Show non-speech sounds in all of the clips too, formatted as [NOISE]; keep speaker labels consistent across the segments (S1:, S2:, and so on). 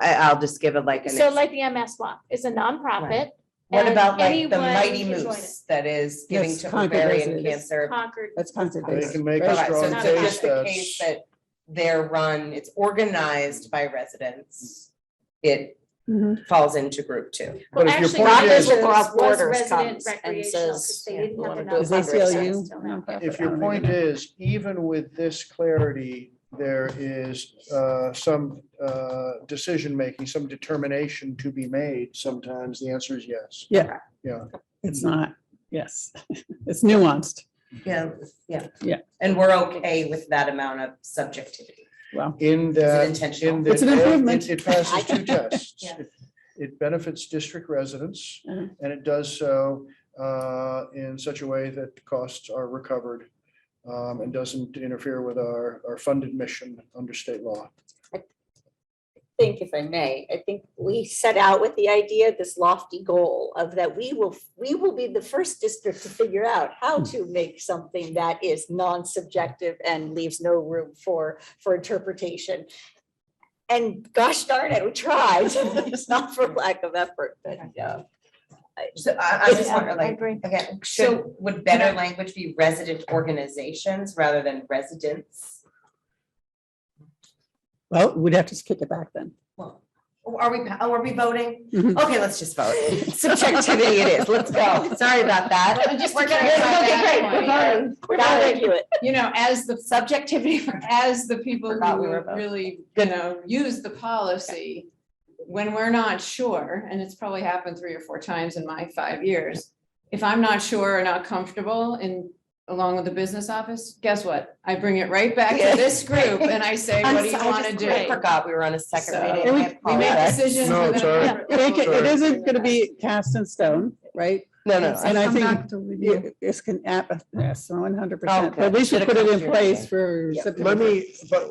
S1: I, I'll just give it like an.
S2: So like the MS WAP is a nonprofit.
S1: What
S2: and
S1: about like the
S2: anyone
S1: mighty
S2: can join
S1: moose that is giving
S3: Yes,
S1: to
S3: Concord
S1: ovarian
S3: residents.
S2: it.
S1: cancer?
S2: Concord.
S3: That's conservation.
S4: They can make a
S1: Right, so
S4: strong
S1: it's
S2: Concord.
S1: just
S4: case
S1: the case
S4: that's.
S1: that they're run, it's organized by residents. It
S2: Mm-hmm.
S1: falls into group two.
S4: But if your
S2: Actually,
S4: point
S2: Rogers
S4: is,
S5: Rogers- Law
S2: was- was
S5: Borders
S2: resident
S5: comes and
S2: recreational 'cause
S5: says,
S2: they
S5: yeah,
S2: didn't
S5: we
S2: have
S5: wanna
S2: a
S5: do a
S3: Is
S2: nonprofit
S5: fundraiser.
S3: ACLU?
S2: until now.
S4: if your point is, even with this clarity, there is uh, some uh, decision-making, some determination to be made, sometimes the answer is yes.
S3: Yeah.
S4: Yeah.
S3: It's not, yes, [LAUGHS] it's nuanced.
S1: Yeah, yeah.
S3: Yeah.
S1: And we're okay with that amount of subjectivity.
S3: Well,
S4: In that,
S1: intentional?
S4: in
S3: It's an
S4: that,
S3: improvement.
S4: it- it passes two tests.
S1: [LAUGHS] Yeah.
S4: It- It benefits district residents,
S3: Uh-huh.
S4: and it does so uh, in such a way that costs are recovered um, and doesn't interfere with our, our funded mission under state law.
S5: think, if I may, I think we set out with the idea, this lofty goal of that we will, we will be the first district to figure out
S4: Hmm.
S5: how to make something that is non-subjective and leaves no room for, for interpretation. And gosh darn it, we tried. [LAUGHS] It's not for lack of effort, but yeah.
S1: So I, I just wonder
S2: I
S1: like,
S2: agree.
S1: again, should, would better language be resident organizations rather than residents?
S3: well, we'd have to kick it back then.
S1: Well, Are we, oh, are we voting?
S3: Mhm.
S1: Okay, let's just vote. Subjectivity it is, let's go. Sorry about that.
S6: Just
S1: We're
S6: to
S1: gonna
S6: clarify
S1: go get
S6: that
S1: great.
S6: point,
S5: We're not arguing.
S6: You know, as the subjectivity, as the people
S1: Forgot we
S6: who
S1: were both.
S6: really, you know, use the policy. When we're not sure, and it's probably happened three or four times in my five years. If I'm not sure or not comfortable in, along with the business office, guess what? I bring it right back to this group and I say,
S1: I'm
S6: what do you
S1: sorry, I
S6: want to
S1: just- I
S6: do?
S1: Forgot we were on a second
S6: So-
S1: reading. I
S6: We make
S1: apologize.
S6: decisions.
S4: No,
S6: within
S4: it's all
S6: a-
S4: right.
S3: It it
S4: Sorry.
S3: isn't going to be cast in stone, right?
S1: No, no,
S3: And I
S7: Come
S3: think
S7: back to review.
S3: it- it's can, app- yes, one hundred percent,
S1: Okay.
S3: but we should
S1: Should've
S3: put it
S1: come
S3: in
S1: to your
S3: place
S1: meeting.
S3: for
S1: Yeah.
S3: September.
S4: Let me, but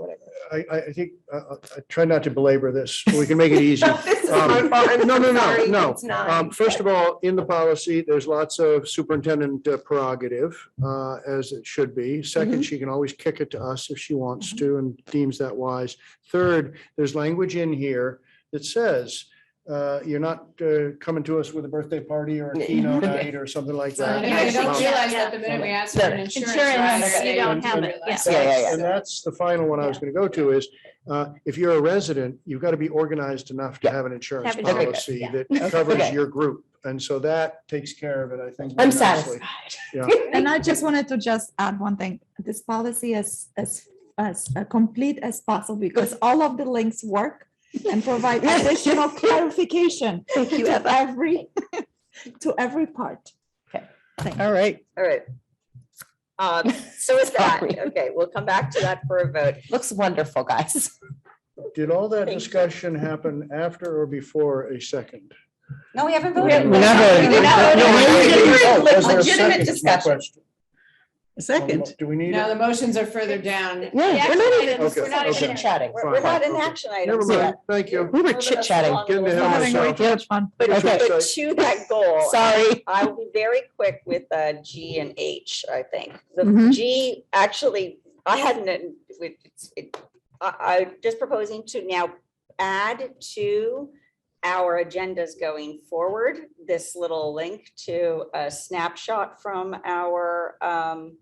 S4: I, I, I think, uh, uh, I try not to belabor this, we can
S1: [LAUGHS]
S4: make it easy.
S1: [LAUGHS] This is my
S4: Um,
S1: fault. I'm
S4: No, no, no,
S1: sorry.
S4: no.
S1: It's not.
S4: Um, First of all, in the policy, there's lots of superintendent uh, prerogative, uh, as it should be.
S1: Mm-hmm.
S4: Second, she can always kick it to us if she wants to and deems that wise. Third, there's language in here that says, uh, you're not uh, coming to us with a birthday party or a
S1: Yeah. [LAUGHS]
S4: keynote night or something like that.
S6: And I don't
S4: Um,
S6: realize that the minute we ask for an insurance.
S2: Insurance,
S6: rider,
S2: you
S6: they
S2: don't have
S6: realize
S2: it, yeah.
S1: Yeah, yeah, yeah.
S4: And that's the final one I was going to go to is, uh, if you're a resident, you've got to be organized enough to have an insurance
S2: Have insurance,
S4: policy
S2: yeah.
S4: that covers
S1: Okay.
S4: your group. And so that takes care of it, I think.
S1: I'm
S4: very nicely.
S1: satisfied.
S7: And I just wanted to just add one thing. This policy is as, as uh, complete as possible because all of the links work and provide additional clarification to every, [LAUGHS] to every part.
S3: All right,
S5: All right. Um, so is that,
S1: Sorry.
S5: okay, we'll come back to that for a vote.
S1: Looks wonderful, guys.
S4: Did all that
S5: Thank you.
S4: discussion happen after or before a second?
S1: No, we haven't
S3: haven't
S1: voted.
S3: voted.
S1: We did not
S3: No,
S4: Oh,
S1: vote.
S4: was there a
S1: Legitimate
S4: second? Is my
S1: discussion.
S4: question.
S3: second,
S4: Do we need
S6: No,
S4: it?
S6: the motions are further down.
S2: The
S1: Yeah,
S2: action items,
S4: Okay,
S2: we're not
S4: okay.
S2: even-
S1: chit-chatting.
S5: We're, we're
S4: Fine,
S5: not in
S4: okay.
S5: action
S4: Never
S5: items
S4: mind,
S5: yet.
S4: thank you.
S1: We were
S5: Moving us
S1: chit-chatting.
S5: along a
S4: Getting
S5: little
S4: ahead of
S5: bit.
S7: Having a
S4: myself.
S7: huge one.
S5: But
S4: Okay.
S5: but to that goal,
S1: Sorry.
S5: I will be very quick with uh, G and H, I think. The
S7: Mhm.
S5: G, actually, I hadn't, uh, with- it's- it- I, I'm just proposing to now add to our agendas going forward, this little link to a snapshot from our um,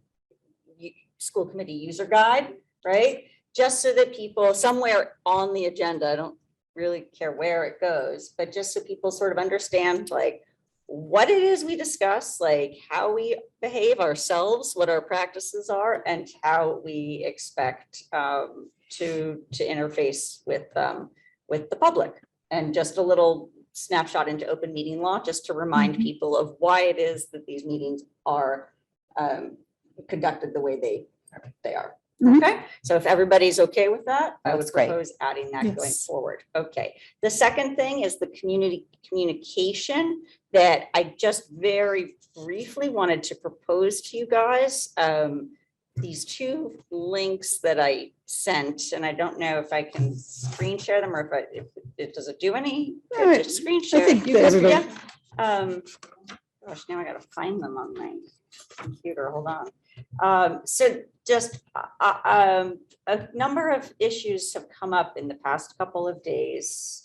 S5: u- school committee user guide, right? Just so that people, somewhere on the agenda, I don't really care where it goes, but just so people sort of understand like what it is we discuss, like how we behave ourselves, what our practices are, and how we expect um, to, to interface with, um, with the public. And just a little snapshot into open meeting law, just to remind
S1: Mm-hmm.
S7: Mhm.
S5: people of why it is that these meetings are um, conducted the way they, they are.
S3: Mhm.
S5: Okay, so if everybody's okay with that, I
S1: Mm-hmm.
S5: would
S1: That's great.
S5: propose adding that going
S7: Yes.
S5: forward. Okay. The second thing is the community communication that I just very briefly wanted to propose to you guys. Um, These two links that I sent, and I don't know if I can screen share them or if I, if it does it do any
S3: All right.
S5: to screen
S3: I
S5: share.
S3: think
S5: You guys-
S3: everybody-
S5: yeah. Um, Gosh, now I gotta find them on my computer. Hold on. Um, So just, uh, uh, um, a number of issues have come up in the past couple of days